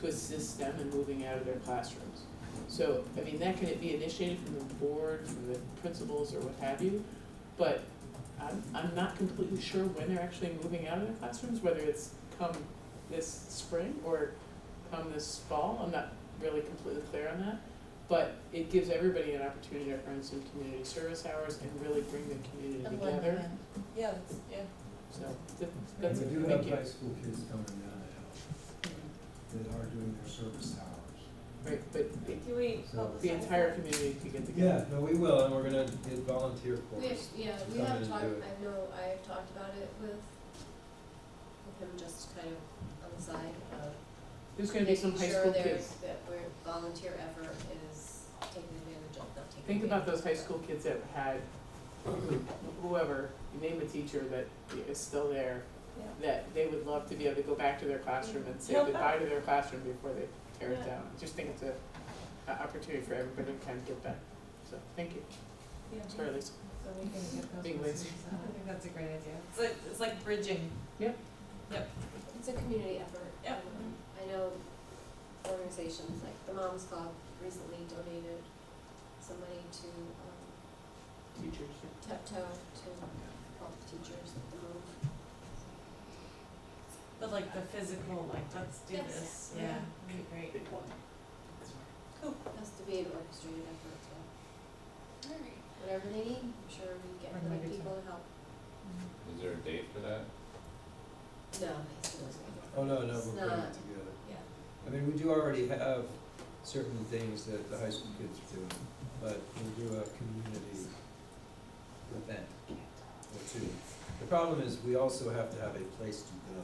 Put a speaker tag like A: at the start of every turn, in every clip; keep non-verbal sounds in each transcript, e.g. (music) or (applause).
A: to assist them in moving out of their classrooms. So, I mean, that can be initiated from the board, from the principals or what have you, but I'm, I'm not completely sure when they're actually moving out of their classrooms, whether it's come this spring or come this fall, I'm not really completely clear on that. But it gives everybody an opportunity to earn some community service hours and really bring the community
B: I'd like
A: together,
B: that. Yeah, that's, yeah.
A: so th- that's,
C: We
A: thank you.
C: do have high school kids coming down the hill that are doing their service hours.
A: Right, but the-
B: Do we
C: So-
D: oh,
B: publicize
A: the entire
B: that?
A: community could get together.
C: Yeah, no, we will, and we're gonna get volunteer
D: We have,
C: corps.
D: yeah,
C: to
D: we
C: come in
D: have
C: and
D: talked,
C: do it.
D: I know, I have talked about it with, with him just kind of on the side of
A: There's gonna be some high school
D: Making sure there's,
A: kids,
D: that we're, volunteer effort is taken advantage of, not taken.
A: think about
D: advantage
A: those
D: of.
A: high school kids that had, whoever, name a teacher that is still there,
B: Yeah.
A: that they would love to be able to go back to their classroom and say
B: Help
A: goodbye to their classroom before they tear it
B: Yeah.
A: down. Just think it's a, a opportunity for everybody to kind of get back, so, thank you,
B: Yeah.
A: sorry, Lisa.
B: So we can get those
A: Big
B: messages
A: ways.
B: out. I think that's a great idea. It's like, it's like bridging.
D: It's a community effort.
B: Yep.
D: Um, I know organizations like the Moms Club recently donated some money to, um,
A: Teachers.
D: Tiptoe to help teachers with the move.
B: But like the physical, like, let's do
D: Yes.
B: this,
D: Yeah.
B: yeah, it'd be great.
A: Big one.
D: Has to be an orchestrated effort, so
B: Alright.
D: whatever they need, I'm sure we get the right people to help.
E: Is there a date for that?
D: No, it's not.
C: Oh, no, no,
D: It's
C: we're putting it
D: not-
C: together.
D: yeah.
C: I mean, we do already have certain things that the high school kids are doing, but we'll do a community event or two. The problem is, we also have to have a place to go.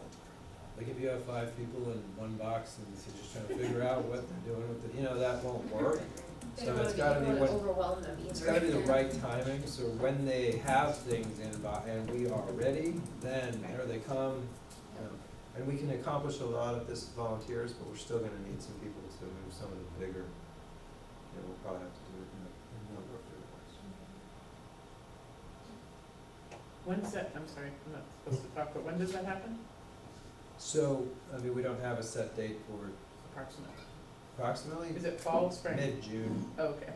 C: Like, if you have five people in one box and you're just trying to figure out what they're doing with it, you know, that won't
D: (laughs)
C: work.
D: They
C: So
D: don't wanna
C: it's
D: be, they
C: gotta be
D: don't
C: what-
D: wanna overwhelm them either.
C: It's gotta be the
D: (laughs)
C: right timing, so when they have things in by, and we are ready, then there they come. you know. And we can accomplish a lot of this as volunteers, but we're still gonna need some people to move some of the bigger, you know, we'll probably have to do it in a- in a number of different ways.
A: When's that, I'm sorry, I'm not supposed to talk, but when does that happen?
C: So, I mean, we don't have a set date for
A: Approximately.
C: approximately
A: Is it fall, spring?
C: mid-June,
A: Oh, Okay.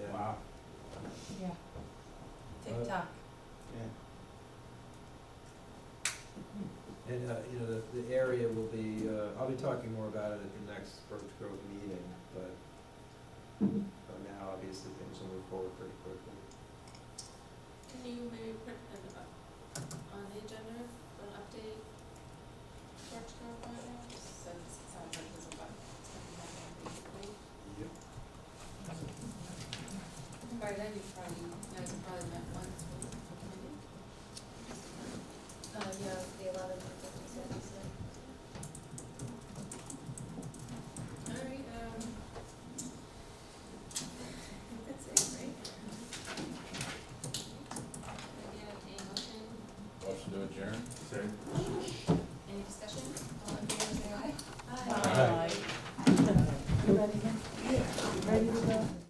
C: yeah.
B: Yeah. TikTok.
C: And, uh, you know, the, the area will be, uh, I'll be talking more about it at the next Birch Grove meeting, but but now, obviously, things will move forward pretty quickly.
D: Can you maybe put an, up- on the agenda, for an update, George Grove Gardens, since it sounds like there's a lot that's happened that recently?
C: Yep.
D: By then, you probably, you guys have probably met once, maybe? Uh, yeah, the eleventh, I think you said, you said. All right, um. That's it, right? Maybe a motion,
E: Motion to adjourn?
D: any discussion, all in